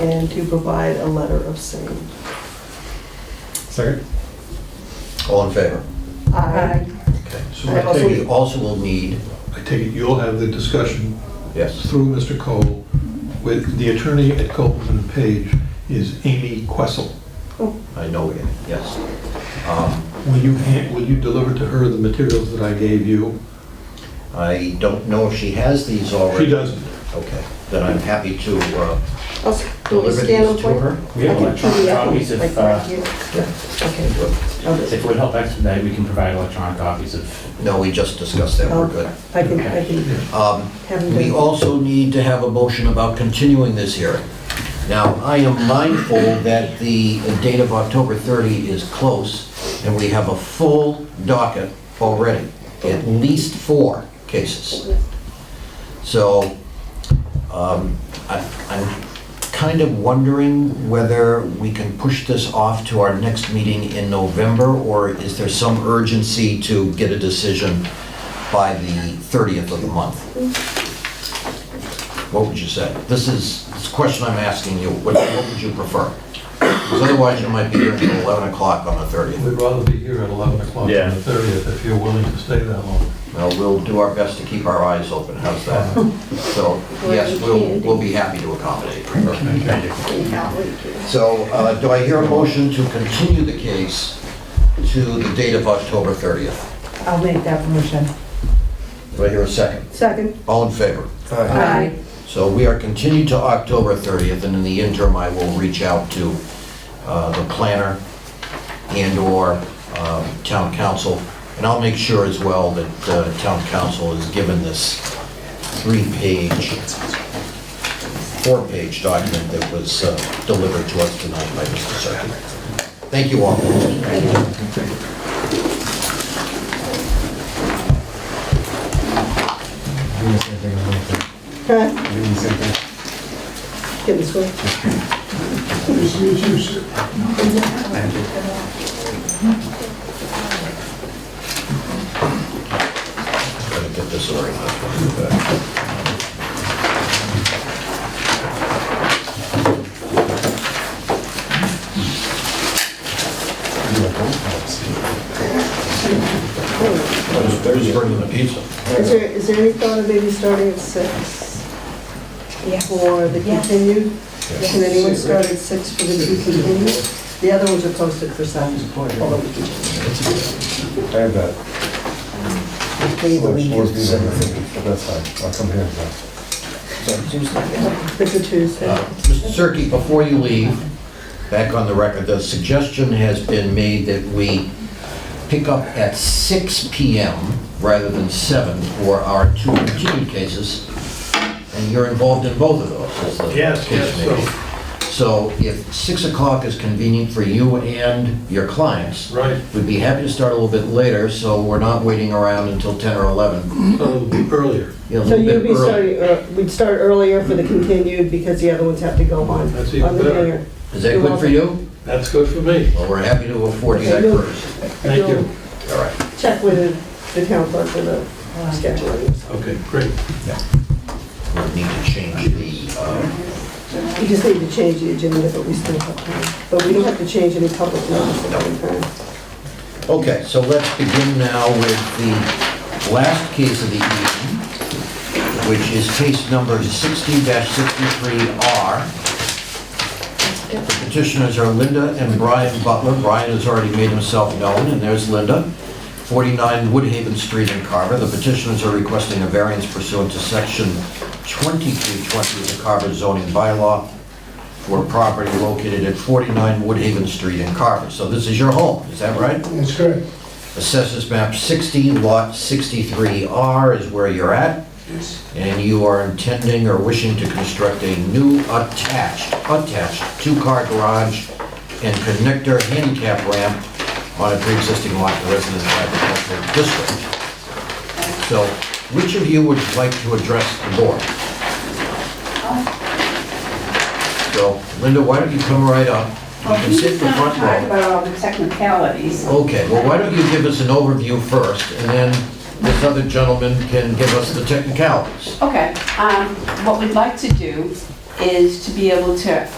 and to provide a letter of same. Second? All in favor? I, Okay. So I I also- take We it, also will need, I take it you'll have the discussion yes, through Mr. Cole with the attorney at Copeland and Page is Amy Questle. I know it, yes. Um, Will you, hand- will you deliver to her the materials that I gave you? I don't know if she has these already. She doesn't. Okay, then I'm happy to uh, I'll, s- do we deliver scan them these for to you? her. I We have can electronic PDF them, copies like, if, right uh, here. Yeah. Okay, I'll if just- it would help expedite, we can provide electronic copies of, No, we just discussed that, Oh. we're good. I can, I can Um, have them. We done. also need to have a motion about continuing this hearing. Now, I am mindful that the date of October 30 is close, and we have a full docket already, at least four cases. So um, I- I'm kind of wondering whether we can push this off to our next meeting in November, or is there some urgency to get a decision by the 30th of the month? What would you say? This is, this question I'm asking you, what what would you prefer? Because otherwise you might be here until 11 o'clock on the 30th. We'd rather be here at 11 o'clock on the Yeah. 30th if you're willing to stay that long. Well, we'll do our best to keep our eyes open, how's that? So, yes, we'll, we'll be happy to accommodate. So, uh, do I hear a motion to continue the case to the date of October 30th? I'll make that motion. Do I hear a second? Second. All in favor? Aye. So we are continued to October 30th, and in the interim, I will reach out to uh, the planner and/or um, town council, and I'll make sure as well that uh, town council is given this three-page, four-page document that was uh, delivered to us tonight by Mr. Serkin. Thank you all. Doing the same thing. I'm doing. Huh? Doing the same thing. Get this way. Gotta get this organized. They're just bringing the pizza. Is there, is there any thought of maybe starting at six? For the continued? Can anyone start at six for the two continued? The other ones are posted for seven, although we can change. I have that. They Well, it's believe supposed you. to be seven thirty, but that's fine. I'll come here. and talk. It's a Tuesday. Uh, Mr. Cirque, before you leave, back on the record, the suggestion has been made that we pick up at 6 PM rather than 7 for our two continued cases, and you're involved in both of those, is the Yes, yes, case may be. So if 6 o'clock is convenient for you and your clients, Right. we'd be happy to start a little bit later, so we're not waiting around until 10 or 11. So it'll be earlier. you know, a So little you'd bit be early. starting, ear- we'd start earlier for the continued because the other ones have to go on. That's even on the better. dinner. Is that good for you? That's good for me. Well, we're happy to afford you that Okay, you'll- courtesy. Thank you. All right. Check with the town clerk for the scheduling. Okay, great. We'll need to change the, uh, We just need to change the agenda, but we still have time. But we don't have to change any public notice at any time. okay, so let's begin now with the last case of the evening, which is case number 60-63R. The petitioners are Linda and Brian Butler. Brian has already made himself known, and there's Linda, 49 Woodhaven Street in Carver. The petitioners are requesting a variance pursuant to section 2320 of the Carver zoning bylaw for a property located at 49 Woodhaven Street in Carver. So this is your home, is that right? That's correct. Assessors map 60, lot 63R is where you're at, Yes. and you are intending or wishing to construct a new attached, attached two-car garage and connector handicap ramp on a pre-existing lot in the residential agricultural district. So which of you would like to address the board? So Linda, why don't you come right up? You Well, can he's sit in the gonna front row. Oh. talk about all the technicalities. Okay, well, why don't you give us an overview first, and then this other gentleman can give us the technicalities. Okay, um, what we'd like to do is to be able to